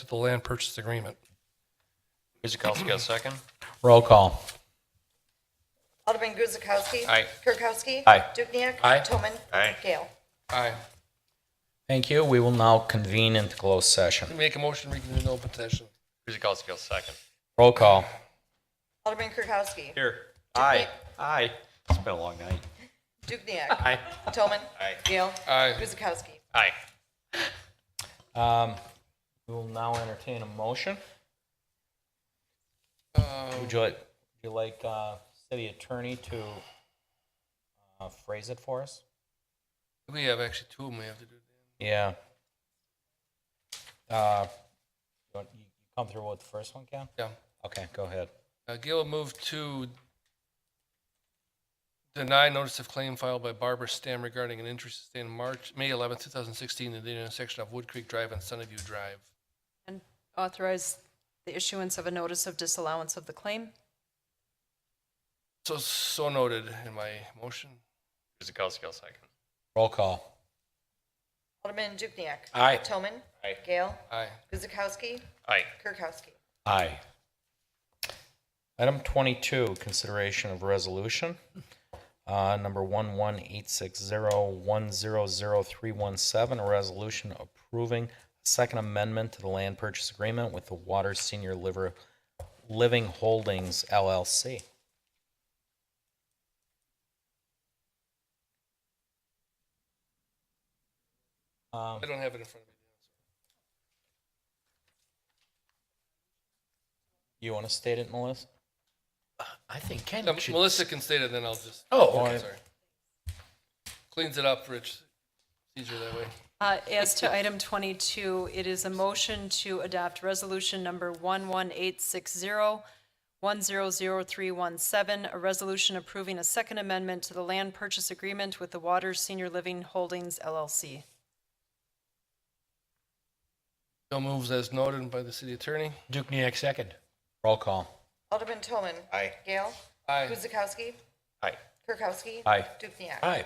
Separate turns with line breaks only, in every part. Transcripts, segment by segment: to the land purchase agreement.
Kuzikowski, got a second?
Roll call.
Alderman Guzekowski.
Aye.
Kirkowski.
Aye.
Dukenyak.
Aye.
Toman.
Aye.
Gale.
Aye.
Thank you. We will now convene into closed session.
Make a motion, reconvene in open session.
Kuzikowski, got a second?
Roll call.
Alderman Kirkowski.
Here. Aye. Aye. It's been a long night.
Dukenyak.
Aye.
Toman.
Aye.
Gale.
Aye.
Guzekowski.
Aye.
Um, We will now entertain a motion. Um, Would you like, would you like uh, city attorney to uh, phrase it for us?
We have actually two of them we have to do.
Yeah. Uh, you want- you Come through with the first one, Ken?
Yeah.
Okay, go ahead.
Uh, Gail moved to deny notice of claim filed by Barbara Stam regarding an injury sustained March, May 11, 2016, at the intersection of Wood Creek Drive and Sunnyview Drive.
And authorize the issuance of a notice of disallowance of the claim.
So, so noted in my motion.
Kuzikowski, got a second?
Roll call.
Alderman Dukenyak.
Aye.
Toman.
Aye.
Gale.
Aye.
Guzekowski.
Aye.
Kirkowski.
Aye. Item 22, consideration of resolution, uh, number 11860100317, a resolution approving a second amendment to the land purchase agreement with the Water Senior Liver- Living Holdings LLC. Um,
Um,
I don't have it in front of me.
You want to state it, Melissa?
I think Ken
Um,
should.
Melissa can state it, then I'll just.
Oh,
Okay,
okay.
sorry. Cleans it up, Rich. Easier that way.
Uh, As to item 22, it is a motion to adopt resolution number 11860-100317, a resolution approving a second amendment to the land purchase agreement with the Waters Senior Living Holdings LLC.
Bill moves as noted by the city attorney.
Dukenyak second.
Roll call.
Alderman Toman.
Aye.
Gale.
Aye.
Guzekowski.
Aye.
Kirkowski.
Aye.
Dukenyak.
Aye.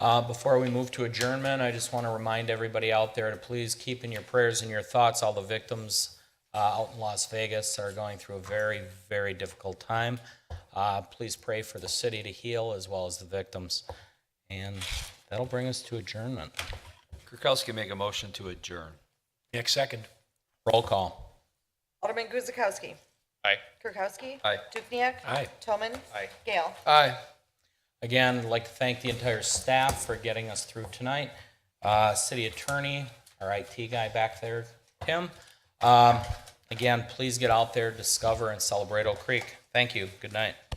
Uh, Before we move to adjournment, I just want to remind everybody out there to please keep in your prayers and your thoughts all the victims uh, out in Las Vegas that are going through a very, very difficult time. Uh, Please pray for the city to heal as well as the victims. And that'll bring us to adjournment.
Kirkowski make a motion to adjourn.
Dukenyak second.
Roll call.
Alderman Guzekowski.
Aye.
Kirkowski.
Aye.
Dukenyak.
Aye.
Toman.
Aye.
Gale.
Aye.
Again, I'd like to thank the entire staff for getting us through tonight. Uh, City Attorney, our IT guy back there, Tim. Um, Again, please get out there, discover and celebrate Oak Creek. Thank you. Good night.